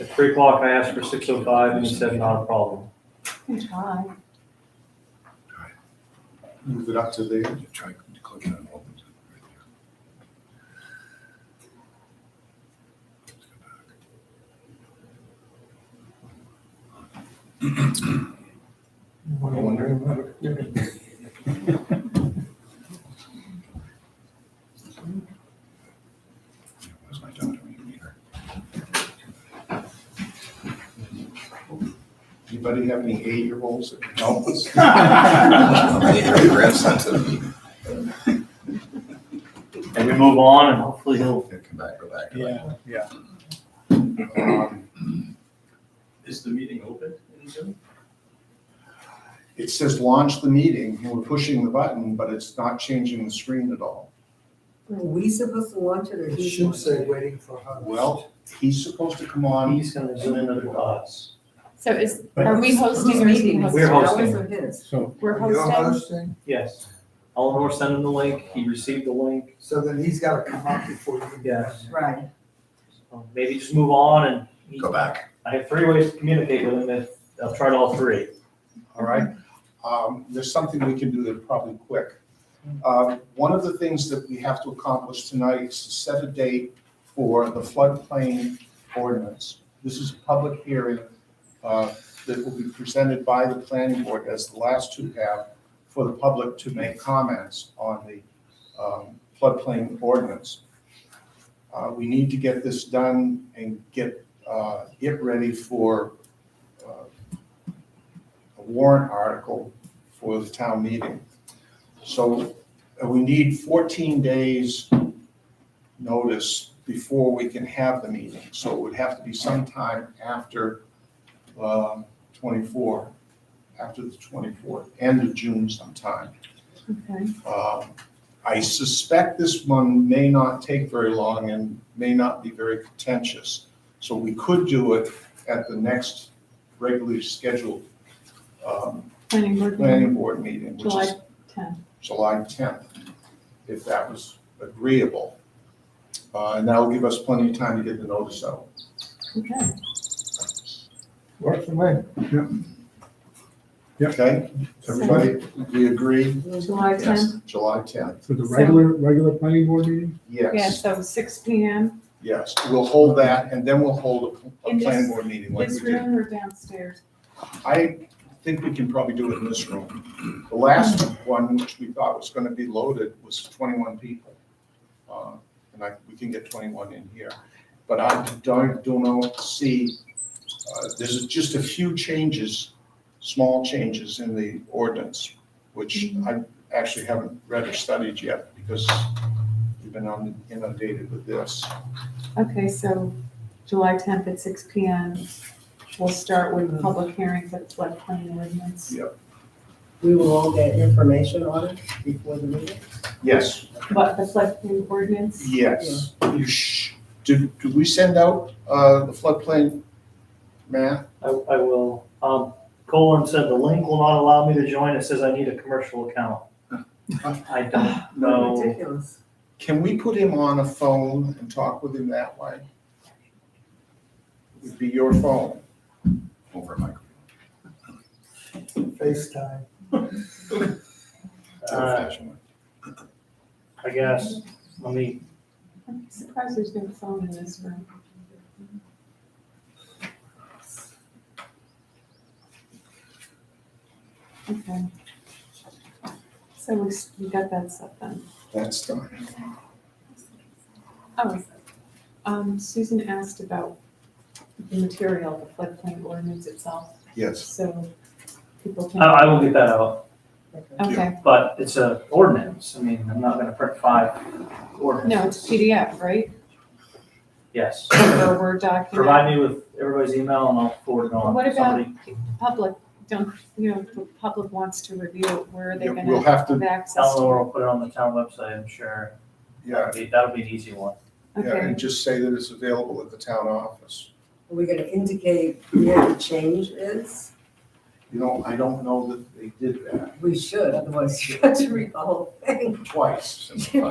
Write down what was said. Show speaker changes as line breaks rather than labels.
At three o'clock, I asked for six oh five, and he said not a problem.
Can try.
Move it up to there.
Try to click on all of them right there. Let's go back. Yeah, Where's my daughter? We need her.
Anybody have any eight-year-olds that can help us?
I need her grandson to be-
And we move on, and hopefully he'll,
yeah, Come back, go back. go back.
Yeah, yeah. Um,
Is the meeting open in Zoom?
It says launch the meeting, and we're pushing the button, but it's not changing the screen at all.
Are we supposed to launch it or
It
he?
should
wants
say
it?
waiting for her.
Well, he's supposed to come on,
um, he's gonna zoom in with us.
So is,
But-
are we
Whose
hosting or is he
meeting?
We're
hosting?
hosting.
Ours or his?
So.
We're
You're
hosting?
hosting,
Yes. Eleanor sent him the link, he received the link.
so then he's gotta come up before you. can do
Yes.
it.
Right.
Um, Maybe just move on, and he-
Go back.
I have three ways to communicate with him, and I've tried all three.
all right? Um, There's something we can do that probably quick. Um, One of the things that we have to accomplish tonight is to set a date for the floodplain ordinance. This is a public hearing uh, that will be presented by the planning board, as the last two have, for the public to make comments on the um, floodplain ordinance. Uh, We need to get this done and get uh, it ready for uh, a warrant article for the town meeting. So uh, we need 14 days notice before we can have the meeting. So it would have to be sometime after um, 24, after the 24th, end of June sometime.
Okay.
Um, I suspect this one may not take very long and may not be very contentious. So we could do it at the next regularly scheduled um,
Planning board meeting,
planning board meeting, which
July
is
10th.
July tenth, if that was agreeable. Uh, and that'll give us plenty of time to get the notice out.
Okay.
Works for me.
Okay, everybody, we agree?
July
Yes,
10th?
July tenth,
So the
So-
regular, regular planning board meeting?
Yeah,
yes,
so six P M.
yes. We'll hold that and then we'll hold a, a
In this-
planning board meeting like we
This
did.
room or downstairs?
I think we can probably do it in this room. The last one, which we thought was gonna be loaded, was twenty-one people. Uh, And I, we can get twenty-one in here, but I don't, don't know, see, uh, there's just a few changes, small changes in the ordinance, which I actually haven't read or studied yet because we've been on- inundated with this.
Okay, so July tenth at six P M. We'll start with public hearing for the floodplain ordinance.
We will all get information on it before the meeting.
Yes,
What, the floodplain ordinance?
yes. You sh, did, did we send out, uh, the floodplain map?
I, I will. Um, Colin said the link will not allow me to join. It says I need a commercial account. I don't know.
Ridiculous.
Can we put him on a phone and talk with him that way? It'd be your phone.
Over my.
FaceTime.
Uh,
old-fashioned way.
I guess, let me,
I'm surprised there's no phone in this room. Okay. So we, s- we got that stuff done.
That's done.
Oh, um, Susan asked about the material, the floodplain ordinance itself,
Yes.
so people
I,
can,
Uh, I will get that out,
okay.
but it's a ordinance. I mean, I'm not gonna print five
No, it's
ordinances.
PDF, right?
Yes.
Or Word document.
Provide me with everybody's email and I'll forward it on
What
to
about
somebody.
Public, don't, you know, if the public wants to review it, where are they
Yeah,
gonna
We'll have
have
to,
access to?
Eleanor will put it on the town website, I'm sure.
yeah,
That'll be- That'll be an easy one.
yeah,
Okay,
and just say that it's available at the town office.
Are we gonna indicate where the change is?
You know, I don't know that they did that
We should, otherwise you have to read the whole thing.
twice.
Simplify.